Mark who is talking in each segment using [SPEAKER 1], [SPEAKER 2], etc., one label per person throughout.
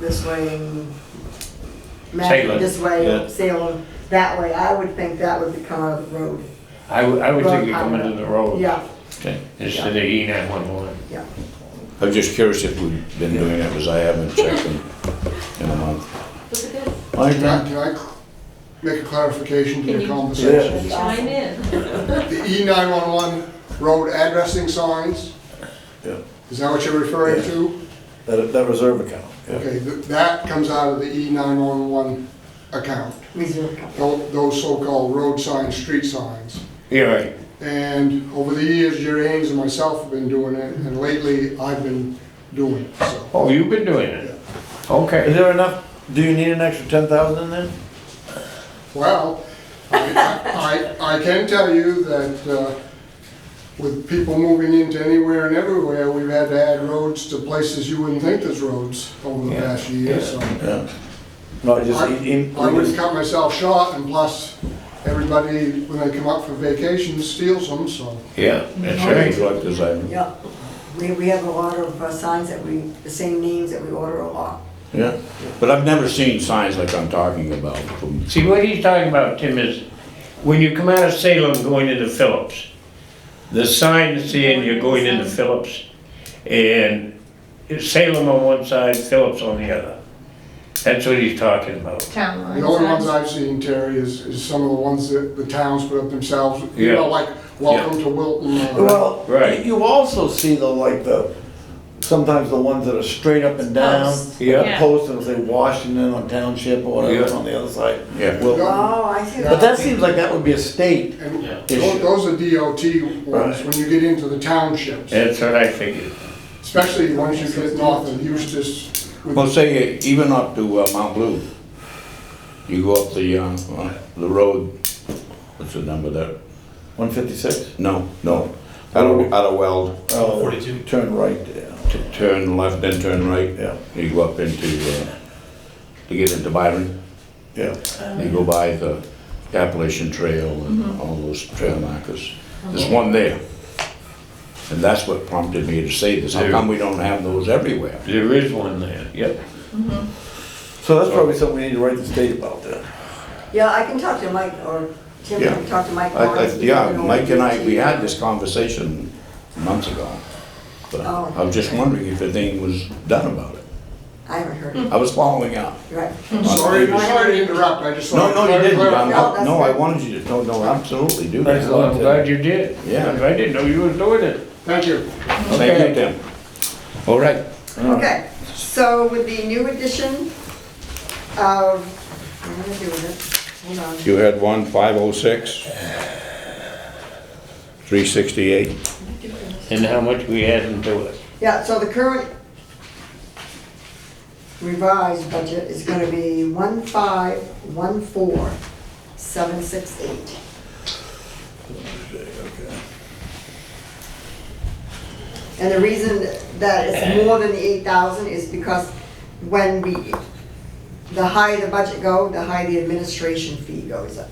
[SPEAKER 1] this way and Magic
[SPEAKER 2] Salem,
[SPEAKER 1] this way,
[SPEAKER 2] yeah.
[SPEAKER 1] Salem that way, I would think that would become out of the road.
[SPEAKER 2] I would, I would think
[SPEAKER 1] Road
[SPEAKER 2] you come into the road.
[SPEAKER 1] Yeah,
[SPEAKER 3] Okay.
[SPEAKER 2] Instead of E nine one one.
[SPEAKER 1] yeah.
[SPEAKER 3] I'm just curious if we've been doing it, because I haven't checked in, in a month. Like
[SPEAKER 4] Can I,
[SPEAKER 3] that?
[SPEAKER 4] can I cl- make a clarification to
[SPEAKER 5] Can
[SPEAKER 4] the
[SPEAKER 5] you-
[SPEAKER 4] conversation?
[SPEAKER 5] Chime in.
[SPEAKER 4] The E nine-one-one road addressing signs?
[SPEAKER 6] Yeah.
[SPEAKER 4] Is that what you're referring
[SPEAKER 6] Yeah.
[SPEAKER 4] to?
[SPEAKER 6] That, that reserve account.
[SPEAKER 4] Okay, th- that comes out of the E nine-one-one account,
[SPEAKER 1] Reserve company.
[SPEAKER 4] tho- those so-called road signs, street signs.
[SPEAKER 2] You're right.
[SPEAKER 4] And over the years, Jerry Haynes and myself have been doing it, and lately, I've been doing it, so.
[SPEAKER 2] Oh, you've been doing it?
[SPEAKER 6] Is
[SPEAKER 2] Okay.
[SPEAKER 6] there enough, do you need an extra ten thousand in there?
[SPEAKER 4] Well, I, I, I can tell you that uh, with people moving into anywhere and everywhere, we've had to add roads to places you wouldn't think there's roads over the past year, so.
[SPEAKER 6] Yeah. No, just in- in-
[SPEAKER 4] I wouldn't cut myself short, and plus, everybody, when they come up for vacation, steals them, so.
[SPEAKER 2] Yeah, that's
[SPEAKER 3] Change
[SPEAKER 2] right.
[SPEAKER 3] like this, I,
[SPEAKER 1] Yeah, we, we have a lot of uh, signs that we, the same names that we order a lot.
[SPEAKER 3] yeah, but I've never seen signs like I'm talking about. from-
[SPEAKER 2] See, what he's talking about, Tim, is when you come out of Salem going into Phillips, the sign is saying you're going into Phillips, and it's Salem on one side, Phillips on the other. That's what he's talking about.
[SPEAKER 5] Town line.
[SPEAKER 4] The only ones
[SPEAKER 5] signs.
[SPEAKER 4] I've seen, Terry, is, is some of the ones that the towns put up themselves, you
[SPEAKER 2] Yeah.
[SPEAKER 4] know, like, welcome to Wilton. uh, or-
[SPEAKER 6] Well,
[SPEAKER 2] Right.
[SPEAKER 6] you also see the, like, the, sometimes the ones that are straight up and down.
[SPEAKER 5] Posts.
[SPEAKER 2] Yeah.
[SPEAKER 6] Like a Post, it'll say Washington or Township or whatever, it's
[SPEAKER 2] Yeah.
[SPEAKER 6] on the other side.
[SPEAKER 3] Yeah.
[SPEAKER 6] Well,
[SPEAKER 1] Oh, I see.
[SPEAKER 6] But that seems like that would be a state
[SPEAKER 4] And
[SPEAKER 6] issue.
[SPEAKER 4] tho- those are DOT ones,
[SPEAKER 6] Right.
[SPEAKER 4] when you get into the townships.
[SPEAKER 2] That's what I figured.
[SPEAKER 4] Especially once you get north of Eustis. with-
[SPEAKER 3] Well, say, uh, even up to uh, Mount Blue, you go up the, uh, uh, the road, what's the number there?
[SPEAKER 6] One fifty-six?
[SPEAKER 3] No, no, out of, out of Weld,
[SPEAKER 6] Oh, forty-two. Turn right there.
[SPEAKER 3] T- turn left, then turn right.
[SPEAKER 6] Yeah,
[SPEAKER 3] You go up into, uh, to get into Byron,
[SPEAKER 6] yeah.
[SPEAKER 3] you go by the Appalachian Trail and all those trail markers. There's one there. And that's what prompted me to say this, how come we don't have those everywhere?
[SPEAKER 2] There is one there, yep.
[SPEAKER 6] So that's probably something we need to write the state about then.
[SPEAKER 1] Yeah, I can talk to Mike, or Tim can
[SPEAKER 3] Yeah.
[SPEAKER 1] talk to Mike.
[SPEAKER 3] I- I-
[SPEAKER 1] Barnes.
[SPEAKER 3] Yeah, Mike and I, we had this conversation months ago, but
[SPEAKER 1] Oh.
[SPEAKER 3] I was just wondering if anything was done about it.
[SPEAKER 1] I haven't heard it,
[SPEAKER 3] I was following up.
[SPEAKER 1] right.
[SPEAKER 4] Sorry, sorry to interrupt, I just.
[SPEAKER 3] No,
[SPEAKER 4] wanted
[SPEAKER 3] no, you
[SPEAKER 4] to
[SPEAKER 3] didn't,
[SPEAKER 4] clarify.
[SPEAKER 3] John. No,
[SPEAKER 1] that's
[SPEAKER 3] no, I
[SPEAKER 1] good.
[SPEAKER 3] wanted you to, no, no, absolutely do
[SPEAKER 6] Thanks a
[SPEAKER 3] that.
[SPEAKER 6] lot.
[SPEAKER 2] Well, I'm glad you did.
[SPEAKER 3] Yeah.
[SPEAKER 2] I didn't know you were doing it.
[SPEAKER 4] Thank you.
[SPEAKER 3] Thank you, Tim. All right.
[SPEAKER 1] Okay, so with the new edition of, I'm gonna do this, hold on.
[SPEAKER 3] You had one, 506, 368.
[SPEAKER 2] And how much we adding to it.
[SPEAKER 1] Yeah, so the current revised budget is gonna be one five, one four, seven six eight. And the reason that it's more than the eight thousand is because when we, the higher the budget go, the higher the administration fee goes up.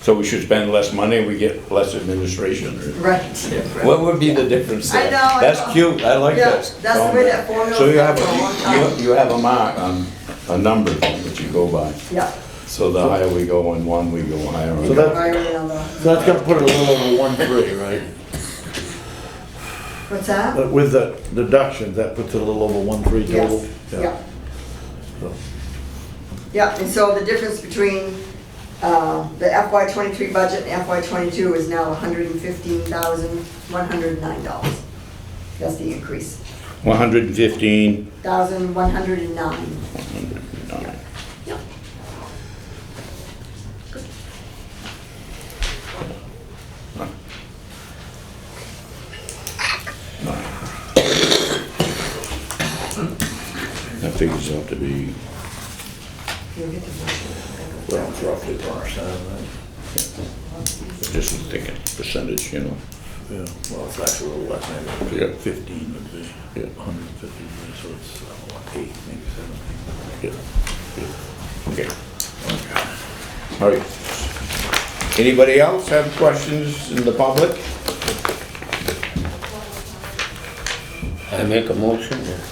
[SPEAKER 3] So we should spend less money, we get less administration. or-
[SPEAKER 1] Right.
[SPEAKER 3] What would be the difference
[SPEAKER 1] I
[SPEAKER 3] there?
[SPEAKER 1] know, I know.
[SPEAKER 3] That's cute, I like
[SPEAKER 1] Yeah,
[SPEAKER 3] this.
[SPEAKER 1] that's the way that formula
[SPEAKER 3] So you have,
[SPEAKER 1] worked for a long
[SPEAKER 3] a-
[SPEAKER 1] time.
[SPEAKER 3] you, you have a mark, um, a number that you go by.
[SPEAKER 1] Yeah,
[SPEAKER 3] So the higher we go in one, we go higher.
[SPEAKER 6] So
[SPEAKER 3] on the-
[SPEAKER 6] that-
[SPEAKER 1] higher than the,
[SPEAKER 6] So that's gonna put it a little over one three, right?
[SPEAKER 1] what's that?
[SPEAKER 6] But with the deductions, that puts it a little over one three total?
[SPEAKER 1] Yes, yeah. Yeah, and so the difference between uh, the FY twenty-three budget and FY twenty-two is now hundred and fifteen thousand, one hundred and nine dollars. That's the increase,
[SPEAKER 3] 115,
[SPEAKER 1] thousand, one hundred and nine.
[SPEAKER 3] that figures out to be,
[SPEAKER 1] You'll get the budget.
[SPEAKER 3] well, it's roughly 10%. Just thinking percentage, you know?
[SPEAKER 6] Yeah, well, it's actually a little less, maybe.
[SPEAKER 3] Yeah.
[SPEAKER 6] Fifteen would be,
[SPEAKER 3] Yeah.
[SPEAKER 6] hundred and fifty, so it's uh, what, eight, maybe seven.
[SPEAKER 3] Yeah. Okay. All right. Anybody else have questions in the public?
[SPEAKER 2] I make a motion.